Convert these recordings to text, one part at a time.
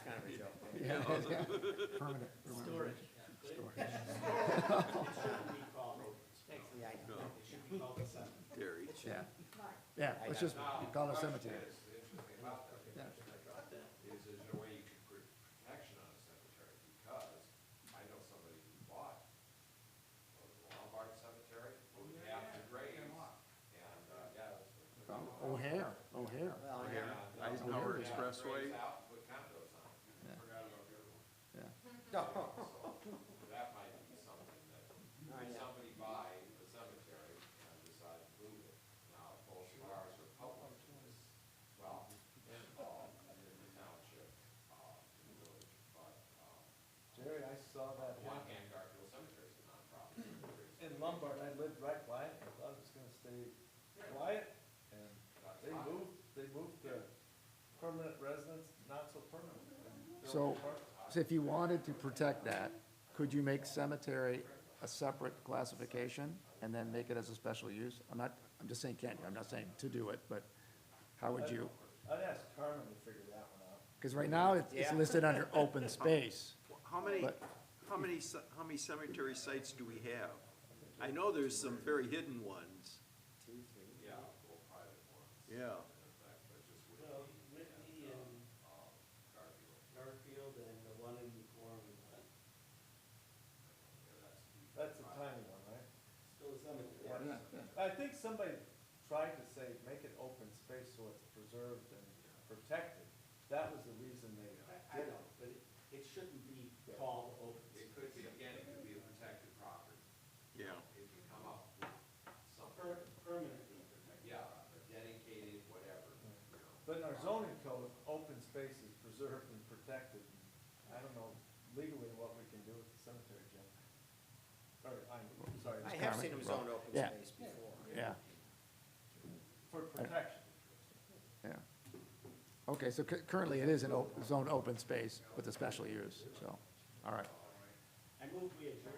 Permanent. Storage. Terry. Yeah, yeah, let's just call it cemetery. Yeah. is, is there a way you could put protection on a cemetery? Because I know somebody who bought a Lombard Cemetery, moved half the graves, and, uh, yeah. it was- O'Hare, Well, yeah. O'Hare, Yeah, Eisenhower yeah, Expressway. Graves out, put condos on it. Forgot about the other one. yeah. So That might be something that, Oh, if yeah. somebody buy a cemetery and decide to move it, now both of ours are public, it's, well, involved in the township, uh, in the village, but, um, Jerry, I saw that on one one hand, Garfield Cemetery is a nonprofit. cemetery, in Lombard, I lived right by it, I thought it was gonna stay quiet, and they moved, they moved the permanent residents, not so permanent. and built So, apartments. so if you wanted to protect that, could you make cemetery a separate classification and then make it as a special use? I'm not, I'm just saying can't you, I'm not saying to do it, but how would you? I'd ask Carmen to figure that one out. Because right now, it's- it's Yeah. listed under open space. How many, But- how many, ce- how many cemetery sites do we have? I know there's some very hidden ones, Two, three. Yeah, or private ones, yeah. in fact, but just with Well, Whitney and Garfield, Garfield and the one in Gorman, but yeah, that's. That's a tiny one, right? still a cemetery. I think somebody tried to say, make it open space so it's preserved and protected. That was the reason they I, I did it. know, but it, it shouldn't be called open It space. could be, again, it could be a protected property, Yeah, if you come up with something. Per- Permanently protected. Yeah, dedicated, whatever, you know. But in our zoning code, open space is preserved and protected. I don't know legally what we can do with the cemetery, Jim. Or, I'm sorry, I have seen them Carmen. zoned open Yeah. space before. Yeah, for protection. yeah. Okay, so cu- currently it is an op- zone open space with a special use, so, all right. I move we adjourn.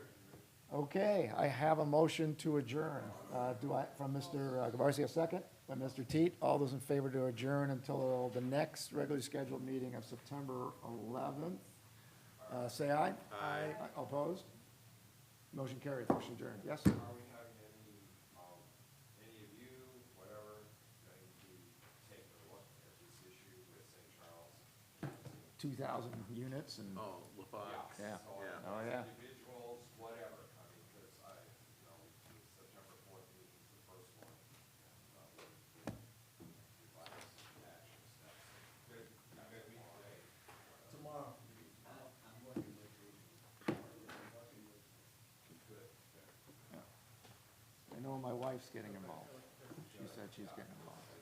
Okay, I have a motion to adjourn. Uh, Do I, from Mr. Gavarsi, a second, by Mr. Teat. All those in favor to adjourn until uh, the next regularly scheduled meeting of September 11th? Uh, Say aye. Aye. Opposed? Motion carried, motion adjourned. Yes? Are we having any, um, any of you, whatever, going to take a look at this issue with St. Charles? 2,000 units and, oh, LaFox, Yeah. So, yeah. Oh, yeah. Individuals, whatever, I mean, because I, you know, the September fourth meeting is the first one. and, uh, we'll- we'll advise some action steps. Good, I mean, we can- Tomorrow. I know my wife's getting involved. She said she's getting involved.